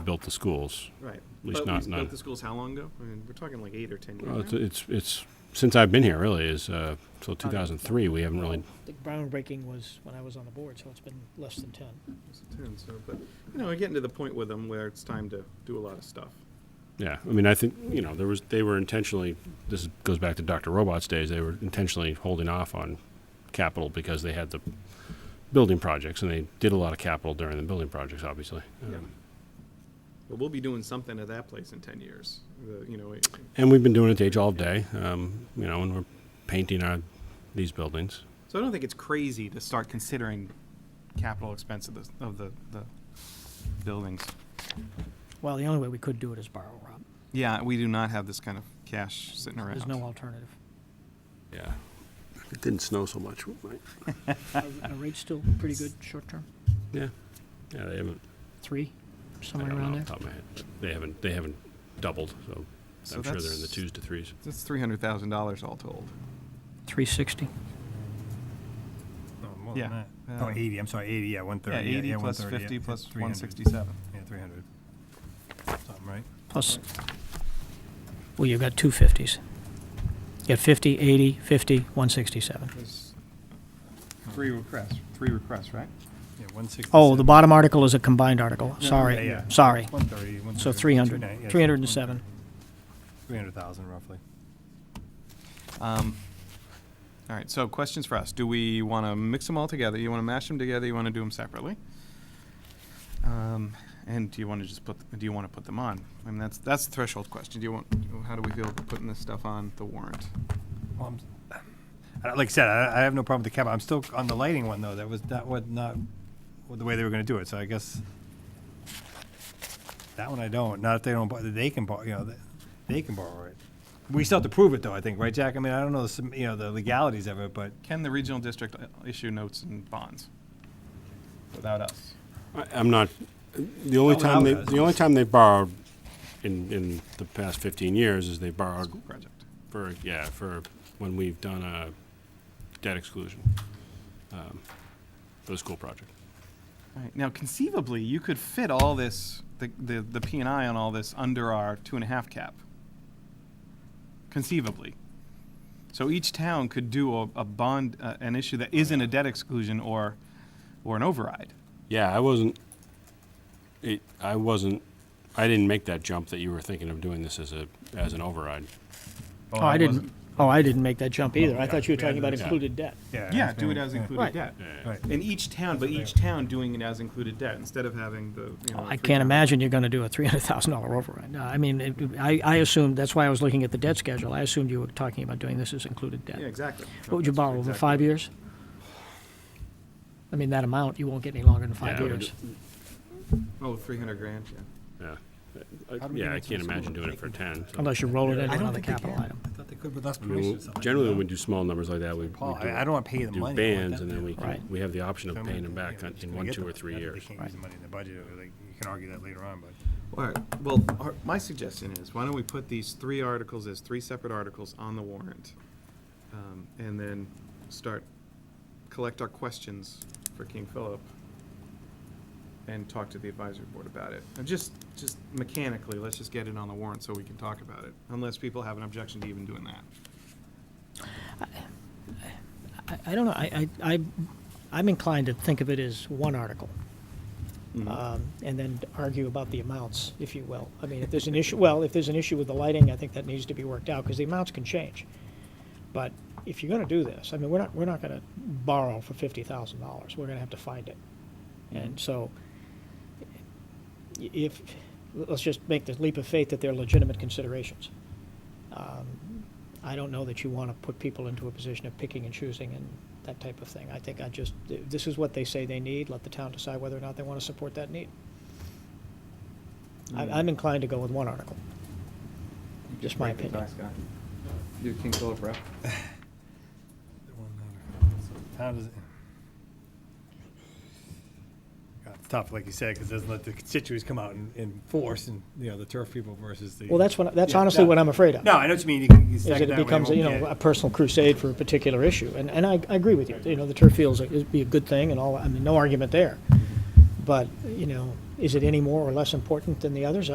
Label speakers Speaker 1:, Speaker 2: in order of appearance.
Speaker 1: built the schools.
Speaker 2: Right.
Speaker 1: least
Speaker 2: But
Speaker 1: not-
Speaker 2: we
Speaker 1: not-
Speaker 2: built the schools how long ago? I mean, we're talking like eight or 10 years
Speaker 1: Well, it's,
Speaker 2: now.
Speaker 1: it's, it's, since I've been here really is, uh, till 2003, we haven't really,
Speaker 3: The groundbreaking was when I was on the board, so it's been less than ten.
Speaker 2: It's 10, so, but, you know, we're getting to the point with them where it's time to do a lot of stuff.
Speaker 1: yeah. I mean, I think, you know, there was, they were intentionally, this goes back to Dr. Robot's days, they were intentionally holding off on capital because they had the building projects and they did a lot of capital during the building projects, obviously.
Speaker 2: Yeah.
Speaker 1: Um,
Speaker 2: But we'll be doing something at that place in 10 years. The- You know, it-
Speaker 1: And we've been doing it to age all day, um, you know, and we're painting our, these buildings.
Speaker 2: so I don't think it's crazy to start considering capital expense of the, of the, the buildings.
Speaker 3: Well, the only way we could do it is borrow, Rob.
Speaker 2: Yeah, we do not have this kind of cash sitting around.
Speaker 3: There's no alternative.
Speaker 1: Yeah. It didn't snow so much.
Speaker 3: Are are rates still pretty good, short term?
Speaker 1: Yeah. Yeah, they haven't.
Speaker 3: Three,
Speaker 1: I
Speaker 3: somewhere
Speaker 1: don't know
Speaker 3: around
Speaker 1: off the
Speaker 3: there?
Speaker 1: top of my head. but They haven't, they haven't doubled, so
Speaker 2: So
Speaker 1: I'm sure they're in the
Speaker 2: that's-
Speaker 1: twos to threes.
Speaker 2: That's $300,000 all told.
Speaker 3: Three sixty.
Speaker 4: No, more
Speaker 2: Yeah.
Speaker 4: than that. Oh,
Speaker 2: Uh,
Speaker 4: 80, I'm sorry, 80, yeah, 130.
Speaker 2: Yeah, 80
Speaker 4: yeah,
Speaker 2: plus
Speaker 4: 130,
Speaker 2: 50
Speaker 4: yeah,
Speaker 2: plus
Speaker 4: 300,
Speaker 2: 167.
Speaker 4: Yeah, 300. Something, right?
Speaker 3: Plus, well, you've got two fifties. You got fifty, eighty, fifty, one sixty-seven.
Speaker 2: There's three requests, three requests, right?
Speaker 4: Yeah, 167.
Speaker 3: Oh, the bottom article is a combined article. Sorry,
Speaker 4: yeah.
Speaker 3: sorry.
Speaker 4: 130, 130.
Speaker 3: So three hundred.
Speaker 4: 290, yeah,
Speaker 3: Three hundred and seven.
Speaker 4: 300,000 roughly.
Speaker 2: Um, All right, so questions for us. Do we want to mix them all together? You want to mash them together? You want to do them separately? Um, And do you want to just put, do you want to put them on? I mean, that's, that's the threshold question. Do you want, how do we feel about putting this stuff on the warrant?
Speaker 4: Well, I'm, I- like I said, I, I have no problem with the cap. I'm still on the lighting one though. That was that was not well, the way they were going to do it. So I guess that one I don't. Not if they don't. bor- They can borrow. You know, they, they can borrow it. We still have to prove it though. I think, right, Jack? I mean, I don't know. The, sum- you know, the legalities of it, but
Speaker 2: Can the regional district uh, issue notes and bonds without us?
Speaker 1: I, I'm not, the only
Speaker 4: Not
Speaker 1: time, they,
Speaker 4: without us.
Speaker 1: the only time they borrowed in, in the past 15 years is they borrowed
Speaker 2: School project.
Speaker 1: for, yeah, for when we've done a debt exclusion um, for the school project.
Speaker 2: All right, now conceivably, you could fit all this, the, the, the P and I on all this under our two and a half cap. Conceivably. So each town could do a, a bond, uh, an issue that isn't a debt exclusion or, or an override.
Speaker 1: Yeah, I wasn't, it, I wasn't, I didn't make that jump that you were thinking of doing this as a, as an override.
Speaker 4: oh,
Speaker 3: Oh, I didn't, oh, I didn't make that jump either. I thought you were
Speaker 4: Yeah,
Speaker 3: talking about
Speaker 4: that's-
Speaker 3: included debt.
Speaker 4: Yeah,
Speaker 2: Yeah,
Speaker 4: that's
Speaker 2: do
Speaker 4: what
Speaker 2: it
Speaker 4: I-
Speaker 2: as
Speaker 4: yeah.
Speaker 2: included debt.
Speaker 4: Right.
Speaker 2: In each town, but each town doing it as included debt instead of having the, you know.
Speaker 3: I
Speaker 2: three
Speaker 3: can't
Speaker 2: towns.
Speaker 3: imagine you're going to do a three hundred thousand dollar override. No, I mean, it- I, I assumed, that's why I was looking at the debt schedule. I assumed you were talking about doing this as included debt.
Speaker 2: Yeah, exactly.
Speaker 3: What would you
Speaker 2: That's
Speaker 3: borrow, over
Speaker 2: exactly-
Speaker 3: five years? I mean, that amount, you won't get any longer than five
Speaker 1: Yeah, I would
Speaker 3: years.
Speaker 2: Oh, three hundred grand, yeah.
Speaker 1: Yeah. I-
Speaker 4: How do we
Speaker 1: Yeah,
Speaker 4: get
Speaker 1: I
Speaker 4: into
Speaker 1: can't
Speaker 4: the
Speaker 1: imagine
Speaker 4: school?
Speaker 1: doing it for 10. so-
Speaker 3: Unless you roll it into
Speaker 4: I don't
Speaker 3: another
Speaker 4: think they
Speaker 3: capital
Speaker 4: can.
Speaker 3: item.
Speaker 4: I thought they could, but that's
Speaker 1: I mean,
Speaker 4: permission.
Speaker 1: we'll- Generally, when we do small numbers like that, we, we
Speaker 4: Paul,
Speaker 1: do-
Speaker 4: I, I don't want to pay the
Speaker 1: do
Speaker 4: money. I want
Speaker 1: bands,
Speaker 4: that
Speaker 1: and then we,
Speaker 4: back.
Speaker 1: can-
Speaker 3: Right.
Speaker 1: we have the option of
Speaker 4: Someone-
Speaker 1: paying them
Speaker 4: yeah,
Speaker 1: back on-
Speaker 4: just
Speaker 1: in
Speaker 4: gonna
Speaker 1: one,
Speaker 4: get
Speaker 1: two,
Speaker 4: the
Speaker 1: or
Speaker 4: money.
Speaker 1: three
Speaker 4: Not that
Speaker 1: years.
Speaker 4: They can't use the money in the budget, or they- you can argue that later on, but.
Speaker 2: All right, well, our- my suggestion is, why don't we put these three articles as three separate articles on the warrant? um, And then start, collect our questions for King Philip and talk to the advisory board about it. And just, just mechanically, let's just get it on the warrant so we can talk about it, unless people have an objection to even doing that.
Speaker 3: I, I don't know, I, I, I- I'm inclined to think of it as one article. Um, and then argue about the amounts, if you will. I mean, if there's an issue, well, if there's an issue with the lighting, I think that needs to be worked out, because the amounts can change. But if you're gonna do this, I mean, we're not, we're not gonna borrow for fifty thousand dollars, we're gonna have to find it. And so, i- if, let's just make the leap of faith that they're legitimate considerations. Um, I don't know that you want to put people into a position of picking and choosing and that type of thing. I think I just, this is what they say they need, let the town decide whether or not they want to support that need.
Speaker 4: Mm.
Speaker 3: I- I'm inclined to go with one article. Just my opinion.
Speaker 2: You're King Philip rep?
Speaker 4: How does it? God, It's tough, like you said, because doesn't let the constituents come out in, in force and, you know, the turf people versus the.
Speaker 3: Well, that's what, that's
Speaker 4: Yeah,
Speaker 3: honestly
Speaker 4: no.
Speaker 3: what I'm afraid of.
Speaker 4: No, I know what you mean. You can- you
Speaker 3: Is
Speaker 4: stack
Speaker 3: that
Speaker 4: it
Speaker 3: it
Speaker 4: that way,
Speaker 3: becomes,
Speaker 4: won't
Speaker 3: you know,
Speaker 4: get-
Speaker 3: a personal crusade for a particular issue. And, and I, I agree
Speaker 4: Mm-hmm.
Speaker 3: with you. You know, the turf fields is be a good thing and all, I mean, no argument there. But, you know, Is it any more or less important than the others?